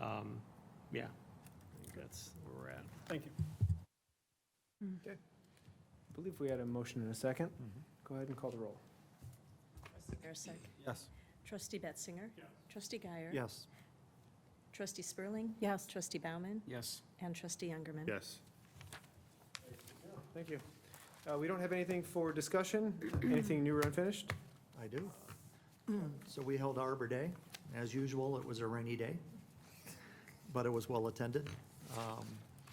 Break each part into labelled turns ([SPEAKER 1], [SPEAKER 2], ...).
[SPEAKER 1] Um, Yeah, I think that's where we're at.
[SPEAKER 2] Thank you.
[SPEAKER 3] I believe we had a motion and a second. Go ahead and call the roll.
[SPEAKER 4] Trustee Marisak.
[SPEAKER 2] Yes.
[SPEAKER 4] Trustee Betzinger.
[SPEAKER 2] Yes.
[SPEAKER 4] Trustee Guyer.
[SPEAKER 2] Yes.
[SPEAKER 4] Trustee Spurling. Yes. Trustee Bauman
[SPEAKER 2] Yes.
[SPEAKER 4] and Trustee Youngerman.
[SPEAKER 1] Yes.
[SPEAKER 3] Thank you. Uh, We don't have anything for discussion, anything new or unfinished?
[SPEAKER 5] I do. So we held Arbor Day. As usual, it was a rainy day, but it was well-attended.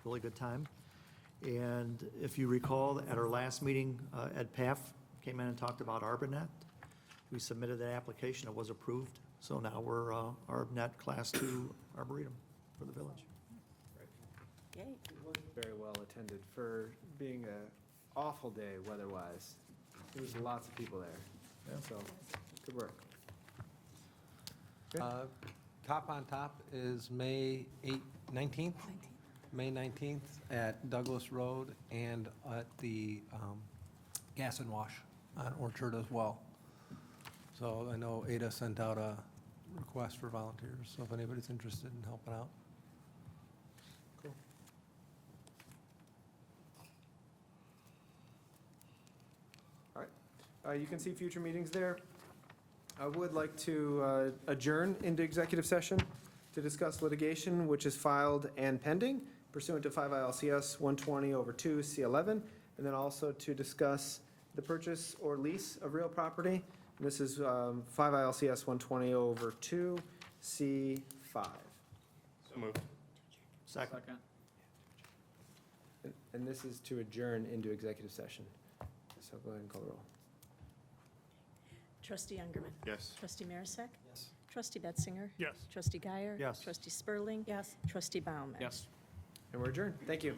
[SPEAKER 5] Really good time. And if you recall, at our last meeting, uh, Ed Paff came in and talked about ArborNet. We submitted that application, it was approved, so now we're uh, ArborNet Class Two Arboretum for the village.
[SPEAKER 4] Yay.
[SPEAKER 3] Very well attended for being a awful day weather-wise. There was lots of people there, so, good work.
[SPEAKER 6] Uh, Top on Top is May 8, 19th, May 19th at Douglas Road and at the um, Gas and Wash on Orchard as well. So I know Ada sent out a request for volunteers, so if anybody's interested in helping out.
[SPEAKER 3] All right. Uh, You can see future meetings there. I would like to uh, adjourn into executive session to discuss litigation which is filed and pending pursuant to 5 ILCS 120 over 2 C11, and then also to discuss the purchase or lease of real property. And This is um, 5 ILCS 120 over 2 C5.
[SPEAKER 1] So moved.
[SPEAKER 5] Second,
[SPEAKER 3] And- And this is to adjourn into executive session. So go ahead and call the roll.
[SPEAKER 4] Trustee Youngerman.
[SPEAKER 1] Yes.
[SPEAKER 4] Trustee Marisak.
[SPEAKER 6] Yes.
[SPEAKER 4] Trustee Betzinger.
[SPEAKER 1] Yes.
[SPEAKER 4] Trustee Guyer.
[SPEAKER 5] Yes.
[SPEAKER 4] Trustee Spurling. Yes. Trustee Bauman.
[SPEAKER 2] Yes.
[SPEAKER 3] And we're adjourned. Thank you.